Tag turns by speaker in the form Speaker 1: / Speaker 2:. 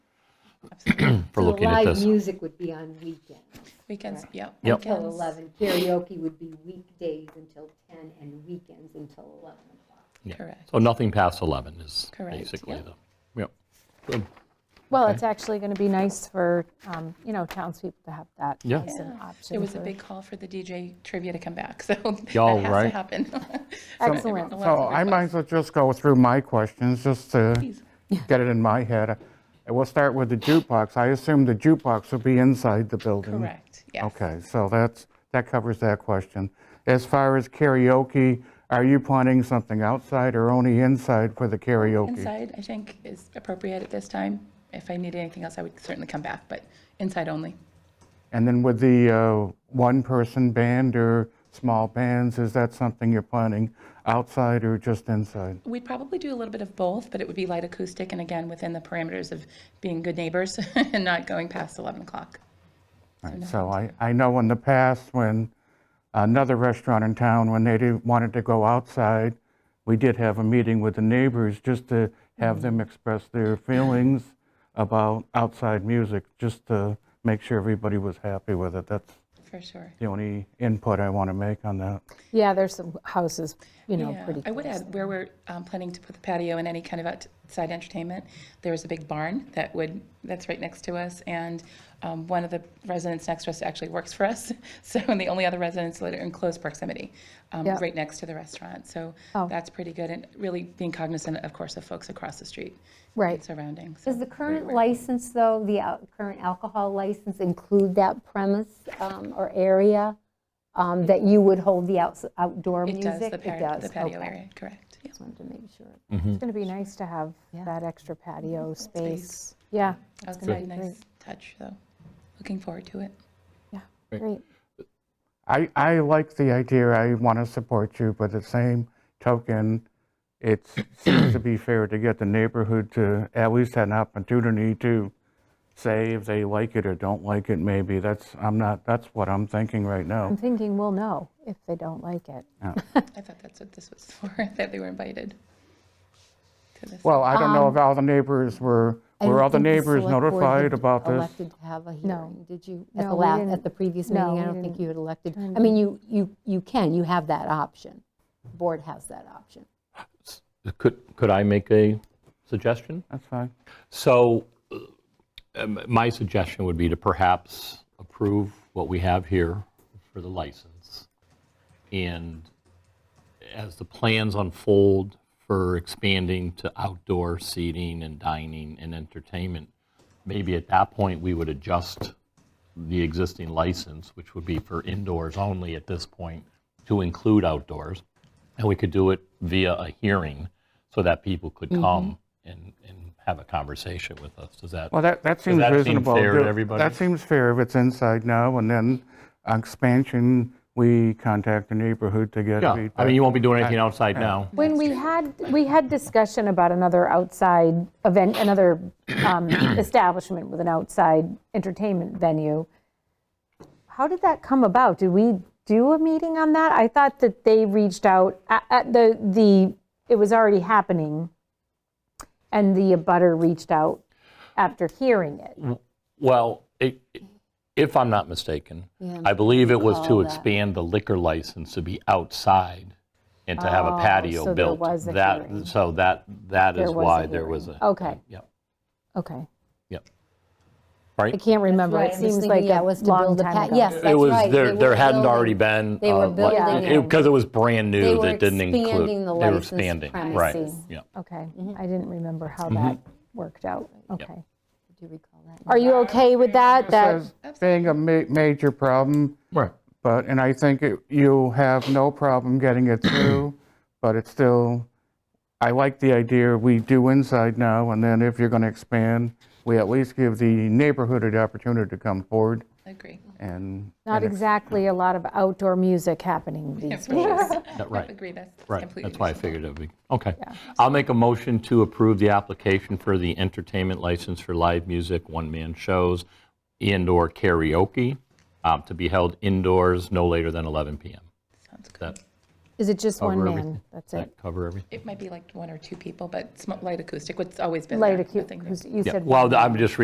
Speaker 1: for
Speaker 2: So the
Speaker 1: looking at
Speaker 2: Live
Speaker 1: this.
Speaker 2: music would be on weekends.
Speaker 3: Weekends,
Speaker 2: Correct.
Speaker 3: yep.
Speaker 1: Yep.
Speaker 2: Till
Speaker 3: weekends.
Speaker 2: 11. Karaoke would be weekdays until 10 and weekends until 11 o'clock.
Speaker 1: Yeah.
Speaker 3: Correct.
Speaker 1: So nothing past 11 is
Speaker 3: Correct,
Speaker 1: basically
Speaker 3: yep.
Speaker 1: the, yep. Good.
Speaker 4: Well, it's actually going to be nice for, um, you know, townspeople to have that
Speaker 1: Yeah.
Speaker 4: as an
Speaker 3: Yeah.
Speaker 4: option.
Speaker 3: It was a
Speaker 4: for-
Speaker 3: big call for the DJ trivia to come back, so that
Speaker 1: Y'all
Speaker 3: has to
Speaker 1: right.
Speaker 3: happen.
Speaker 4: Excellent.
Speaker 3: A lot
Speaker 5: So
Speaker 3: of
Speaker 5: I might as
Speaker 3: requests.
Speaker 5: well just go through my questions, just to
Speaker 3: Please.
Speaker 5: get it in my head. And we'll start with the jukebox. I assume the jukebox will be inside the building?
Speaker 3: Correct, yes.
Speaker 5: Okay, so that's, that covers that question. As far as karaoke, are you planning something outside or only inside for the karaoke?
Speaker 3: Inside, I think, is appropriate at this time. If I needed anything else, I would certainly come back, but inside only.
Speaker 5: And then with the uh, one-person band or small bands, is that something you're planning outside or just inside?
Speaker 3: We'd probably do a little bit of both, but it would be light acoustic, and again, within the parameters of being good neighbors and not going past 11 o'clock.
Speaker 5: Right, So I, I know in the past, when another restaurant in town, when they didn't- wanted to go outside, we did have a meeting with the neighbors just to have them express their feelings about outside music, just to make sure everybody was happy with it. That's
Speaker 3: For sure.
Speaker 5: the only input I want to make on that.
Speaker 4: Yeah, there's some houses, you know,
Speaker 3: Yeah,
Speaker 4: pretty
Speaker 3: I would
Speaker 4: close.
Speaker 3: add, where we're um, planning to put the patio and any kind of outside entertainment, there is a big barn that would, that's right next to us, and um, one of the residents next to us actually works for us, so, and the only other residents that are in close proximity, um,
Speaker 4: Yeah.
Speaker 3: right next to the restaurant, so
Speaker 4: Oh.
Speaker 3: that's pretty good, and really being cognizant, of course, of folks across the street.
Speaker 4: Right.
Speaker 3: and Surrounding, so.
Speaker 2: Does the current license, though, the al- current alcohol license include that premise um, or area um, that you would hold the outs- outdoor
Speaker 3: It
Speaker 2: music?
Speaker 3: does, the patio, the patio
Speaker 2: okay.
Speaker 3: area, correct. yeah.
Speaker 2: Just wanted to make sure.
Speaker 4: It's going to be nice to have that extra patio space. Yeah,
Speaker 3: That's gonna be a nice touch, though. Looking forward to it.
Speaker 4: yeah, great.
Speaker 5: I, I like the idea, I want to support you, but at the same token, it seems to be fair to get the neighborhood to at least have an opportunity to say if they like it or don't like it, maybe, that's, I'm not, that's what I'm thinking right
Speaker 4: I'm
Speaker 5: now.
Speaker 4: thinking we'll know if they don't like it.
Speaker 3: I thought that's what this was for, that they were invited to this.
Speaker 5: Well, I don't know if all the neighbors were,
Speaker 6: Um, I
Speaker 5: were
Speaker 6: don't
Speaker 5: all the
Speaker 6: think
Speaker 5: neighbors
Speaker 6: select board
Speaker 5: notified
Speaker 6: had
Speaker 5: about this?
Speaker 6: Elected to have a hearing, did you? At
Speaker 4: No,
Speaker 6: the
Speaker 4: we
Speaker 6: last,
Speaker 4: didn't.
Speaker 6: at the previous
Speaker 4: No,
Speaker 6: meeting, I
Speaker 4: we
Speaker 6: don't think
Speaker 4: didn't.
Speaker 6: you had elected. I mean, you, you, you can, you have that option. The Board has that option.
Speaker 1: Could, could I make a suggestion?
Speaker 5: That's fine.
Speaker 1: So uh, um, my suggestion would be to perhaps approve what we have here for the license. And as the plans unfold for expanding to outdoor seating and dining and entertainment, maybe at that point, we would adjust the existing license, which would be for indoors only at this point, to include outdoors. And we could do it via a hearing so that people could come and, and have a conversation with us. Does that?
Speaker 5: Well, that, that seems
Speaker 1: that seem
Speaker 5: reasonable.
Speaker 1: fair to
Speaker 5: Do-
Speaker 1: everybody?
Speaker 5: That seems fair if it's inside now, and then expansion, we contact the neighborhood to get
Speaker 1: Yeah,
Speaker 5: feedback.
Speaker 1: I mean, you won't be doing anything outside now.
Speaker 4: When we had, we had discussion about another outside event, another um, establishment with an outside entertainment venue. How did that come about? Did we do a meeting on that? I thought that they reached out, a- at the, the, it was already happening, and the abutter reached out after hearing it.
Speaker 1: Well, i- i- if I'm not mistaken, I believe it was to expand the liquor license to be outside and to have a
Speaker 4: Oh,
Speaker 1: patio
Speaker 4: so there
Speaker 1: built.
Speaker 4: was a
Speaker 1: That-
Speaker 4: hearing.
Speaker 1: So that, that
Speaker 4: There
Speaker 1: is
Speaker 4: was a
Speaker 1: why there
Speaker 4: hearing.
Speaker 1: was a.
Speaker 4: Okay.
Speaker 1: Yep,
Speaker 4: Okay,
Speaker 1: yep.
Speaker 4: I
Speaker 1: Right?
Speaker 4: can't remember.
Speaker 6: right,
Speaker 4: It
Speaker 6: I'm
Speaker 4: seems
Speaker 6: just
Speaker 4: like
Speaker 6: thinking, yeah,
Speaker 4: a
Speaker 6: it was to
Speaker 4: long
Speaker 6: build a
Speaker 4: time
Speaker 6: pat-
Speaker 4: ago.
Speaker 6: yes,
Speaker 1: It
Speaker 6: That's
Speaker 1: was,
Speaker 6: right,
Speaker 1: there
Speaker 6: they
Speaker 1: There
Speaker 6: were
Speaker 1: hadn't already been.
Speaker 6: building- they were building it.
Speaker 1: Because it was brand
Speaker 6: They
Speaker 1: new
Speaker 6: were
Speaker 1: that didn't include.
Speaker 6: expanding the
Speaker 1: they were
Speaker 6: licensed
Speaker 1: expanding,
Speaker 6: premises.
Speaker 1: Right, yeah.
Speaker 4: Okay,
Speaker 6: Mm-hmm.
Speaker 4: I didn't remember how that worked out. Okay.
Speaker 6: Do you recall that?
Speaker 4: Are you okay with that? That
Speaker 5: as being a ma- major problem,
Speaker 1: Right.
Speaker 5: but, and I think it- you have no problem getting it through, but it's still, I like the idea, we do inside now, and then if you're going to expand, we at least give the neighborhood the opportunity to come forward
Speaker 3: Agree.
Speaker 5: and.
Speaker 4: Not exactly a lot of outdoor music happening these days.
Speaker 1: Yeah, Right.
Speaker 3: Agree, that's
Speaker 1: Right,
Speaker 3: completely.
Speaker 1: that's why I
Speaker 3: reasonable.
Speaker 1: figured it would be, okay. I'll make a motion to approve the application for the entertainment license for live music, one-man shows, indoor karaoke, um, to be held indoors no later than 11 PM.
Speaker 3: Sounds good.
Speaker 1: That,
Speaker 4: Is it just one
Speaker 1: Over
Speaker 4: man?
Speaker 1: everything.
Speaker 4: That's it?
Speaker 1: that cover everything?
Speaker 3: It might be like one or two people, but sm- light acoustic, what's always been there.
Speaker 4: Light
Speaker 3: nothing
Speaker 4: acoustic,
Speaker 3: new.
Speaker 4: you
Speaker 1: Yeah,
Speaker 4: said.
Speaker 1: well, I'm just